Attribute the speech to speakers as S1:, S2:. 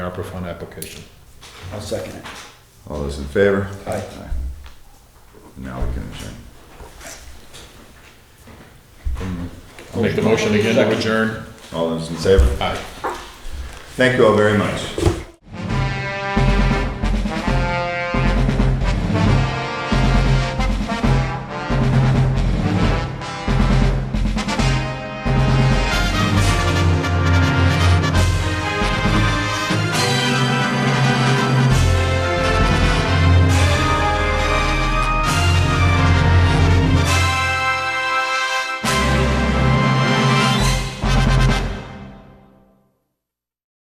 S1: ARPA fund application.
S2: I'll second it.
S3: All those in favor?
S2: Aye.
S3: Now we can adjourn.
S1: I'll Make the motion again to adjourn.
S3: All those in favor?
S1: Aye.
S3: Thank you all very much.